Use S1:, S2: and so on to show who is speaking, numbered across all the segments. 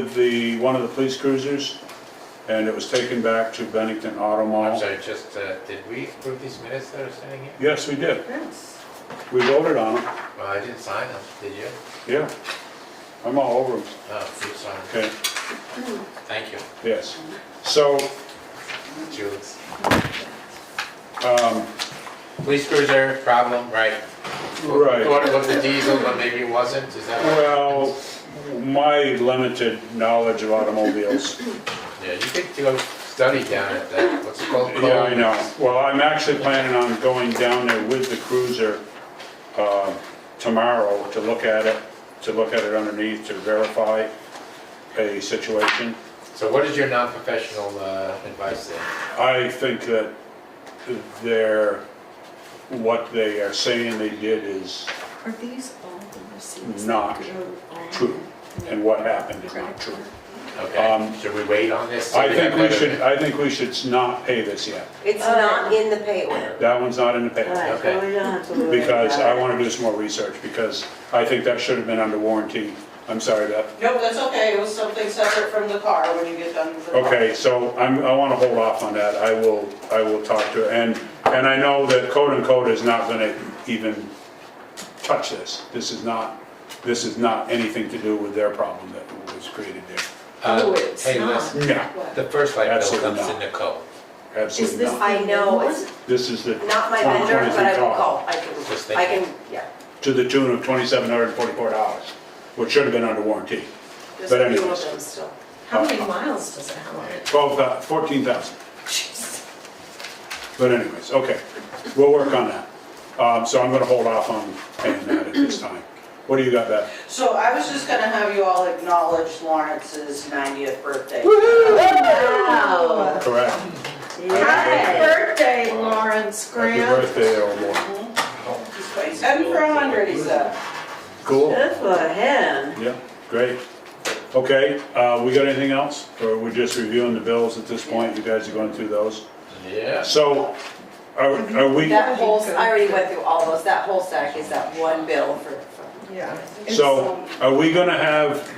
S1: with the, one of the police cruisers, and it was taken back to Bennington Auto
S2: I'm
S1: Mall.
S2: sorry, just, uh, did we approve these minutes that are sitting here?
S1: Yes, we did.
S3: Yes.
S1: We voted on it,
S2: Well, I didn't sign them, did you?
S1: yeah. I'm all over them,
S2: Oh, you signed them.
S1: okay,
S2: Thank you,
S1: yes. So,
S2: Jules.
S1: um,
S2: Police cruiser, problem, right?
S1: Right.
S2: Thought it was a diesel, but maybe it wasn't, is that right?
S1: well, my limited knowledge of automobiles,
S2: Yeah, you could do a study down at that, what's it called?
S1: yeah, I know. Well, I'm actually planning on going down there with the cruiser, uh, tomorrow to look at it, to look at it underneath, to verify a situation.
S2: So what is your non-professional uh, advice there?
S1: I think that they're, what they are saying they did is,
S3: Are these all the receipts?
S1: Not
S3: that go on
S1: true.
S3: the
S1: and what happened is not
S3: credit
S1: true.
S3: card?
S2: Okay,
S1: Um,
S2: should we wait on this?
S1: I think we should, I think we should not pay this yet.
S4: It's not in the pay order.
S1: That one's not in the
S4: All
S1: paper.
S4: right, so we don't have to worry
S1: Because I
S4: about it.
S1: want to do some more research, because I think that should have been under warranty. I'm sorry, Beth.
S5: Nope, that's okay, it was something separate from the car when you get done with the car.
S1: Okay, so I'm, I want to hold off on that. I will, I will talk to, her. and, and I know that Code and Code is not going to even touch this. This is not, this is not anything to do with their problem that was created there.
S2: Uh,
S3: Oh, it's
S2: Hey,
S3: not.
S2: listen,
S1: Yeah,
S2: the first light bill
S1: Absolutely
S2: comes to
S1: not.
S2: Nicole.
S3: Is
S1: absolutely
S3: this
S1: not.
S4: I know, it's
S1: This is the.
S4: not my vendor, but I
S1: 2023
S4: will
S1: car,
S4: call. I can, I can, yeah.
S1: To the tune of twenty-seven hundred and forty-four dollars, which should have been under warranty.
S4: There's
S1: But
S4: a few
S1: anyways.
S4: of them still.
S3: How
S1: Uh-huh.
S3: many miles does it have on it?
S1: Twelve thou, fourteen thousand. But anyways, okay, we'll work on that. Um, so I'm gonna hold off on paying that at this time. What do you got, Beth?
S5: So I was just gonna have you all acknowledge Lawrence's 90th birthday.
S4: Wow.
S1: Correct?
S4: Hi.
S1: Uh,
S3: birthday, Lawrence
S1: Happy birthday, old boy.
S5: And for 100, he said.
S1: Cool.
S4: Good for him.
S1: Yeah, great. Okay, uh, we got anything else? Or we're just reviewing the bills at this point? You guys are going through those?
S2: Yeah.
S1: So, are, are we,
S4: That whole, I already went through all those, that whole stack is that one bill for,
S3: Yeah.
S1: so are we gonna have,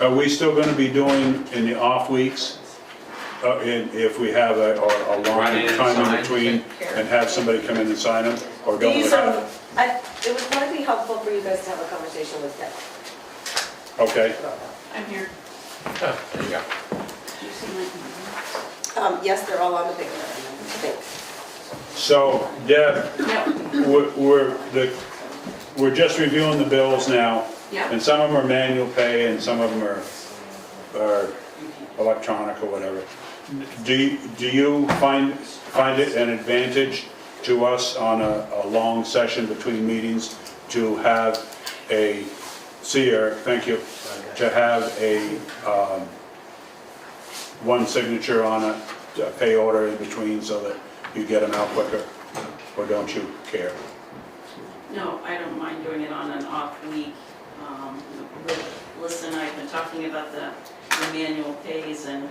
S1: are we still gonna be doing in the off weeks? Uh, in, if we have a, or a long
S2: Run in and
S1: time in
S2: sign.
S1: between and have somebody come in and sign them? Or don't we
S4: these are,
S1: have?
S4: I, it would probably be helpful for you guys to have a conversation with them
S1: Okay,
S4: about that.
S3: I'm here.
S2: Oh, There you go.
S4: Um, yes, they're all on the big one, I think.
S1: so Deb,
S3: Yeah,
S1: we're, we're, the, we're just reviewing the bills now.
S3: yeah.
S1: And some of them are manual pay and some of them are, are electronic or whatever. Do, you- do you find, find it an advantage to us on a, a long session between meetings to have a, see Eric, thank you, to have a, um, one signature on a, a pay order in between so that you get them out quicker? Or don't you care?
S6: No, I don't mind doing it on an off week. Um, with Listen, I've been talking about the the manual pays and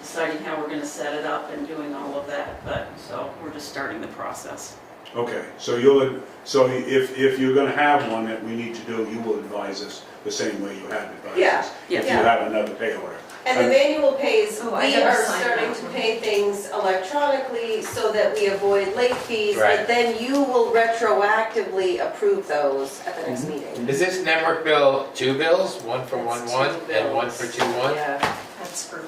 S6: deciding how we're gonna set it up and doing all of that, but, so, we're just starting the process.
S1: Okay, so you'll, so if, if you're gonna have one that we need to do, you will advise us the same way you have advised
S4: Yeah,
S1: us.
S6: yeah.
S1: If you have another pay order.
S4: And the
S1: And-
S4: manual pays,
S3: Oh, I
S4: we
S3: gotta
S4: are
S3: sign
S4: starting
S3: that
S4: to
S3: one.
S4: pay things electronically so that we avoid late fees.
S2: Right.
S4: But then you will retroactively approve those at the next meeting.
S2: Is this network bill two bills, one for one
S3: That's
S2: one
S3: two
S2: and one for
S3: bills.
S2: two one?
S4: Yeah.
S3: That's for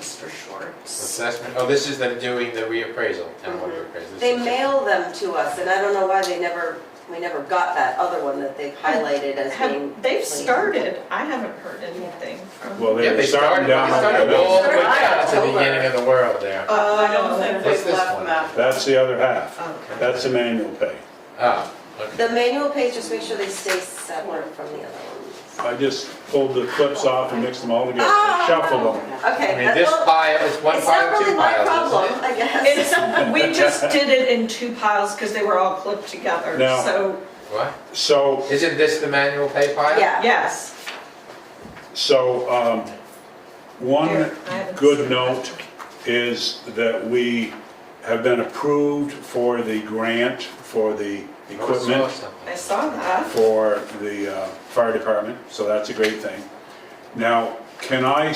S3: Mr. Schwartz.
S2: Assessment, oh, this is them doing the reappraisal, town board reappraisal. This
S4: They
S2: is it.
S4: mail them to us and I don't know why they never, we never got that other one that they've highlighted as being.
S3: Have, they've started, I haven't heard anything from.
S1: Well,
S2: Yeah,
S1: they're
S2: they
S1: starting
S2: started,
S1: down.
S2: they started all the way down to the
S4: October.
S2: beginning of the world there.
S3: Oh,
S5: Uh, I don't think
S2: What's
S5: they've
S2: this
S5: left
S2: one?
S5: them out.
S1: That's the other half.
S3: Okay.
S1: That's the manual pay.
S2: Ah, okay.
S4: The manual pays, just make sure they stay separate from the other ones.
S1: I just pulled the clips off and mixed them all together,
S4: Ah!
S1: shuffled them.
S4: Okay.
S2: I mean,
S4: that-
S2: this
S4: well,
S2: pile is one
S4: It's not
S2: pile,
S4: really
S2: two
S4: my
S2: piles,
S4: problem,
S2: isn't it?
S4: I guess.
S3: It's, we just did it in two piles because they were all clipped together,
S1: Now-
S3: so,
S2: What?
S1: So,
S2: Isn't this the manual pay pile?
S4: Yeah.
S3: yes.
S1: so, um, one
S3: Here, I haven't
S1: good
S3: seen
S1: note is that we have been approved for the grant for the
S2: I would've saw
S1: equipment.
S2: something.
S3: I saw that.
S1: for the uh, fire department, so that's a great thing. Now, can I